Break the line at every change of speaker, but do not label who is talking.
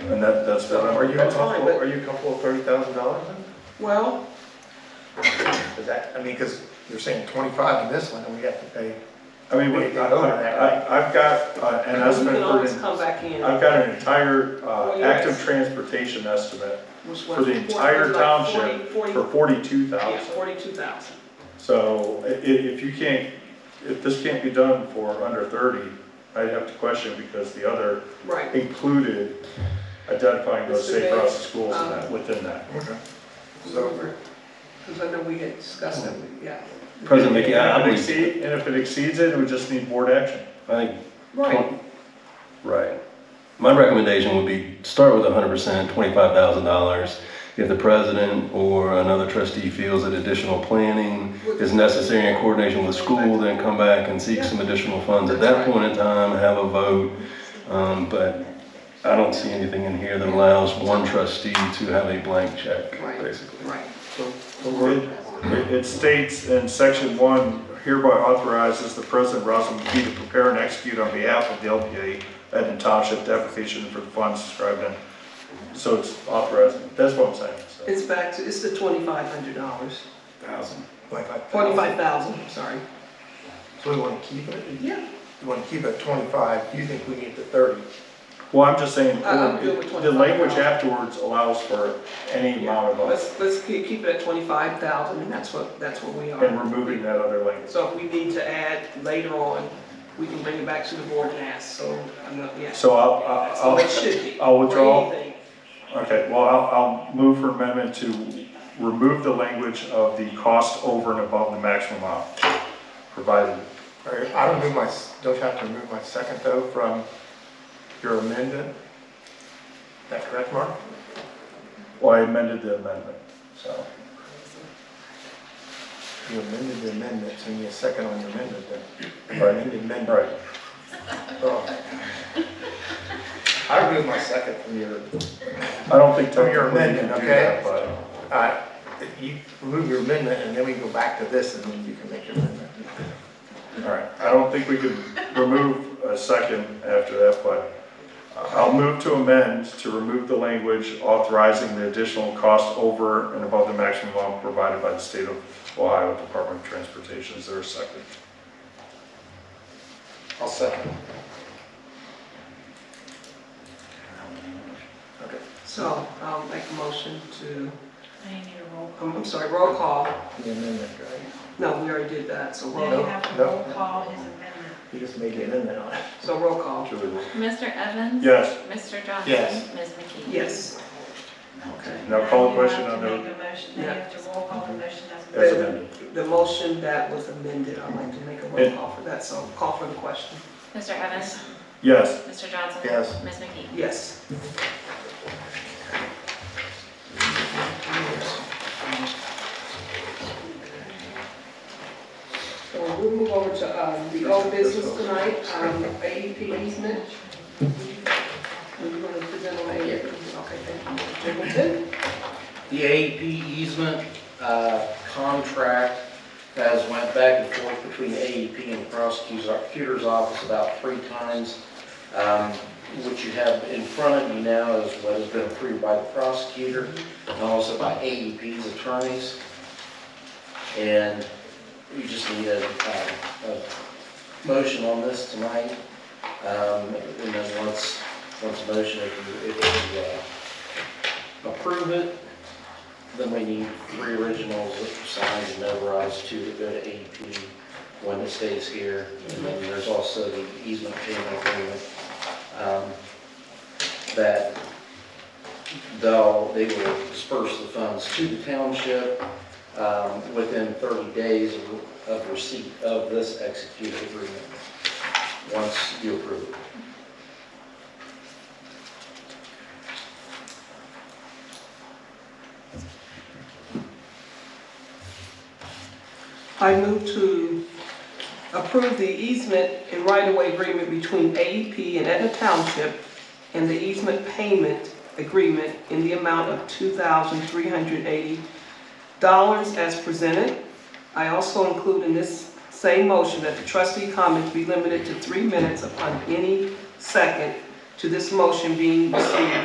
And that, that's, the- are you
That's fine,
comfortable,
but-
are you comfortable with thirty thousand dollars then?
Well,
Is that, I mean, cause you're saying twenty-five in this one, and we have to pay.
I mean,
Wait,
we- I,
not over that, right?
I, I've got, uh, and
we
that's
can
been put
always
in,
come back in.
I've got an entire,
Well,
uh,
yes.
active transportation estimate
Which was
for the
forty-
entire
like
township
forty-
for
forty-
forty-two
Yeah,
thousand.
forty-two thousand.
So i- i- if you can't, if this can't be done for under thirty, I'd have to question because the other
Right.
included identifying those
Mr.
safe
Bay,
routes to schools in
um,
that, within that.
Okay. So,
Because I know we had discussed it, we- yeah.
President McKee, I
And if
I
it
believe,
exceed- And if it exceeds it, we just need board action.
I think,
Right,
right. My recommendation would be, start with hundred percent, twenty-five thousand dollars. If the president or another trustee feels that additional planning is necessary in coordination with school, then come back and seek some additional funds. At that point in time, have a vote. Um, but I don't see anything in here that allows one trustee to have a blank check,
Right.
basically.
right.
It it states in section one, hereby authorizes the president, Rosalind McKee, to prepare and execute on behalf of the LPA Edna Township the application for the funds described in. So it's authorized, that's what I'm saying. so.
It's back to, it's the twenty-five hundred dollars,
thousand, twenty-five thousand.
forty-five thousand, I'm sorry.
So we wanna keep it,
Yeah,
we wanna keep it at twenty-five, do you think we need the thirty?
Well, I'm just saying,
I- I'm good with
the language
25,000.
afterwards allows for any amount of us,
let's, let's keep keep it at twenty-five thousand, and that's what, that's what we
and
are.
removing that other language.
So if we need to add later on, we can bring it back to the board and ask, so, I'm not, yeah.
So I'll,
That's the
I'll,
way it should be.
I'll- I'll
for
withdraw.
anything.
Okay, well, I'll, I'll move for amendment to remove the language of the cost over and above the maximum amount provided.
All right, I remove my, don't you have to remove my second though from your amendment? Is that correct, Mark?
Well, I amended the amendment, so.
You amended the amendment, so you need a second on your amendment then.
Right.
Amended amendment.
Right,
Oh. I remove my second from your,
I don't think
From
technically
your
you can
amendment,
do
okay?
that, but
uh, you remove your amendment and then we go back to this and then you can make your amendment.
All right, I don't think we could remove a second after that, but uh, I'll move to amend to remove the language authorizing the additional cost over and above the maximum amount provided by the state of Ohio Department of Transportation. Is there a second?
I'll second. Okay.
So I'll make a motion to,
I need a roll
Um, I'm I'm sorry, roll call.
The amendment, right?
No, we already did that, so
call.
roll,
Now you
no,
have to
no.
roll call his amendment.
You just made the amendment on it.
so roll call.
Julie?
Mr. Evans?
Yes.
Mr. Johnson?
Yes.
Ms. McKee?
Yes. Okay.
Now call the
you
question
have to
on the,
make a motion. Now you have to roll call the motion as
as
amended.
amended.
The motion that was amended, I'd like to make a roll call for that, so call for the question.
Mr. Evans?
Yes,
Mr. Johnson?
Yes.
Ms. McKee?
Yes. So we'll move over to um, the old business tonight, um, AEP easement. We're going to present on AEP, okay, thank you. Jingleton?
The AEP easement uh, contract has went back and forth between AEP and the prosecutor's prosecutor's office about three times. Um, What you have in front of you now is what has been approved by the prosecutor and also by AEP's attorneys. And you just need a, uh, a motion on this tonight. Um, And then once, once a motion, if you, if you uh, approve it, then we need three originals signed and notarized, two to go to AP, one that stays here, and then there's also the easement payment agreement. um, That they'll, they will disperse the funds to the township um, within 30 days of- of receipt of this executed agreement, once you approve it.
I move to approve the easement and right-of-way agreement between AEP and Etna Township and the easement payment agreement in the amount of $2,380 as presented. I also include in this same motion that the trustee comments be limited to three minutes upon any second to this motion being received